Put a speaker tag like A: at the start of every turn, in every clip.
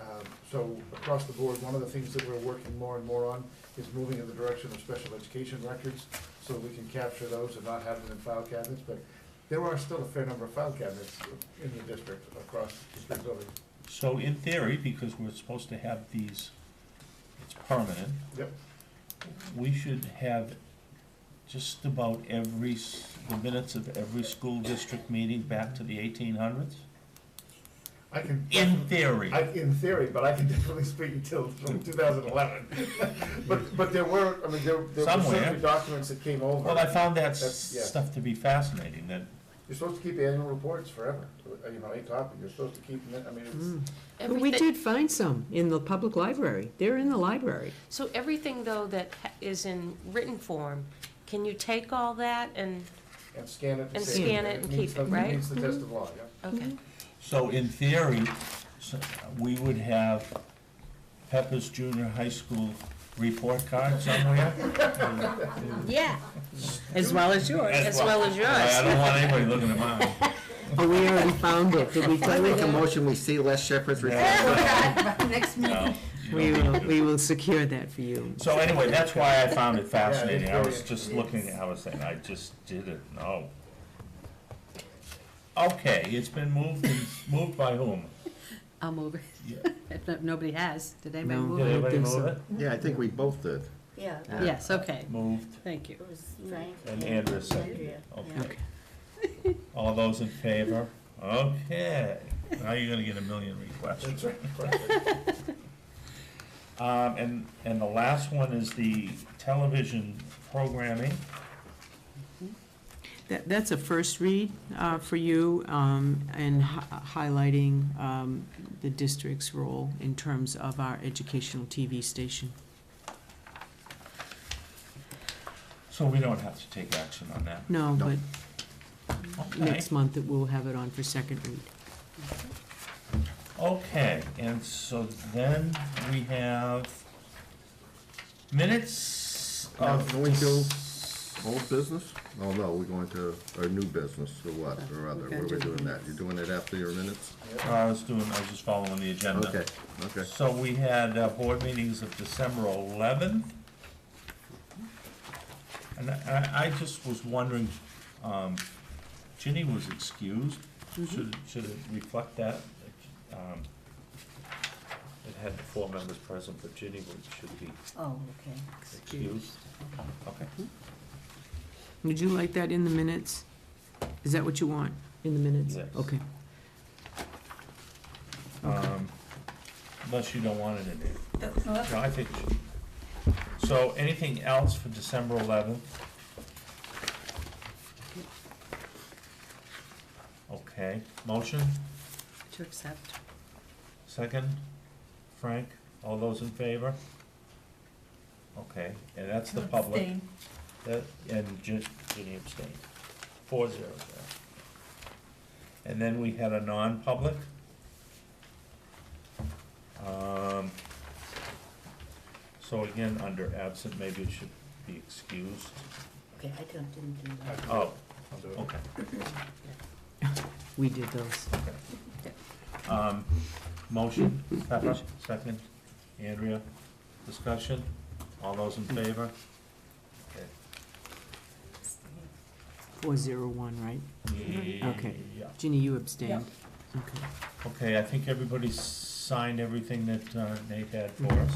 A: Um, So across the board, one of the things that we're working more and more on is moving in the direction of special education records so we can capture those and not have them in file cabinets, but there are still a fair number of file cabinets in the district across the three buildings.
B: So in theory, because we're supposed to have these, it's permanent,
A: Yep,
B: we should have just about every, s- the minutes of every school district meeting back to the eighteen hundreds?
A: I can.
B: In theory,
A: I, in theory, but I can definitely speak until two thousand eleven. But, but there were, I mean, there, there were
B: Somewhere.
A: certainly documents that came over.
B: well, I found that
A: That's- yeah.
B: s- stuff to be fascinating, that
A: You're supposed to keep annual reports forever, uh, you know, a copy, you're supposed to keep, them. I mean, it's,
C: But we
D: Everything,
C: did find some in the public library. They're in the library.
D: so everything though that ha- is in written form, can you take all that and,
A: and scan it and
D: And
A: save it.
D: scan it and
A: meets
D: keep it,
A: the-
D: right? Mm-hmm.
A: meets the test of law, yeah.
D: okay.
E: Mm-hmm.
B: So in theory, so we would have Pepper's Junior High School report card somewhere?
D: Yeah.
C: As well as yours.
D: As well as
B: I
D: yours.
B: don't want anybody looking at mine.
C: Oh, we already found it. Did we
F: I
C: find
F: make a
C: it?
F: motion, we see Les Shepherd's report.
E: Next meeting.
B: No,
C: We
B: you don't
C: will,
B: need to
C: we
B: do
C: will secure that for you.
B: it. So anyway, that's why I found it
A: it's
B: fascinating. I
A: very
B: was just looking, I was saying, I just didn't know. Okay, it's been moved, and- moved by whom?
E: I'll move it,
B: Yeah.
E: if no- nobody has. Did anybody
C: No.
E: move
B: Did
E: it?
B: anybody
C: think so.
B: move it?
F: Yeah, I think we both did.
G: Yeah,
F: Yeah.
E: Yes, okay,
B: Moved,
E: thank you.
G: it was Frank.
B: and Andrea seconded
G: Andrea,
B: it.
G: yeah.
B: Okay. All those in favor? Okay. Now you're gonna get a million requests.
A: That's right.
B: Um, and, and the last one is the television programming.
C: That, that's a first read uh, for you, um, and hi- highlighting um, the district's role in terms of our educational TV station.
B: So we don't have to take action on that.
C: No,
F: No.
C: but
B: Okay,
C: next month, it will have it on for second read.
B: okay, and so then we have minutes of.
F: Now, can we do
B: this-
F: Old business? Oh, no, we're going to, or new business, or what, or other,
E: Okay.
F: what are we doing that? You're doing it after your minutes?
B: Uh, I was doing, I was just following the agenda.
F: Okay, okay.
B: So we had uh, board meetings of December eleventh. And I, I I just was wondering, um, Ginny was excused,
F: Mm-hmm.
B: should, should it reflect that? um, It had four members present, but Ginny would, should be
E: Oh, okay.
B: excused. Okay,
C: Would you like that in the minutes? Is that what you want, in the minutes?
B: Yes.
C: Okay.
B: um, unless you don't want it in there. No, I think it should. So anything else for December eleventh? Okay, motion,
E: To accept.
B: second, Frank, all those in favor? Okay, and that's the public.
G: Abstain.
B: That, and Ginny Ginny abstained, four zero zero. And then we had a non-public. Um, so again, under absent, maybe it should be excused.
G: Okay, I don't, didn't do that.
B: Oh,
A: I'll do it.
B: okay,
C: We did those.
B: okay. Um, motion, Pepper, second, Andrea, discussion, all those in favor?
C: Four zero one, right? Okay.
B: Yeah.
C: Ginny, you abstained. Okay.
B: Okay, I think everybody signed everything that uh, Nate had for us,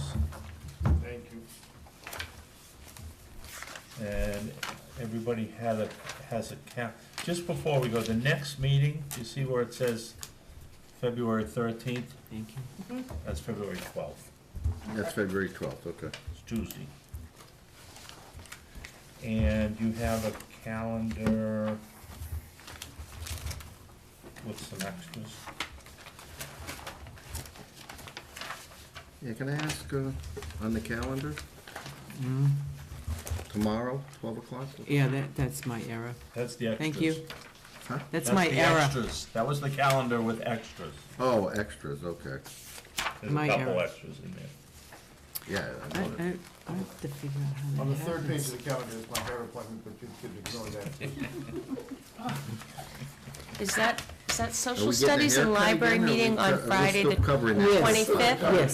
A: Mm-hmm. Thank you.
B: and everybody had a, has a cap. Just before we go, the next meeting, you see where it says February thirteenth?
C: Thank you.
B: That's February twelfth,
D: Uh-huh.
F: That's February twelfth, okay.
B: it's Tuesday. And you have a calendar with some extras.
F: Yeah, can I ask, uh, on the calendar, Mm-hmm.
C: Mm.
F: tomorrow, twelve o'clock?
C: Yeah, that, that's my error.
B: That's the extras.
C: Thank you.
F: Huh?
C: That's my
B: the
C: error.
B: extras. That was the calendar with extras.
F: Oh, extras, okay.
B: There's a
C: My
B: couple
C: error.
B: extras in there.
C: I,
F: Yeah, I
C: I,
F: know it.
C: I have to figure out how that
A: On the third page
C: happens.
A: of the calendar is my hair appointment, but you could ignore that.
D: Is that, is that
F: Are
D: social
F: we getting a
D: studies and
F: haircut
D: library
F: again, or are we
D: meeting on
F: co- are we
D: Friday,
F: still
D: the
F: covering that?
C: Yes.
D: 25th?
C: Yes.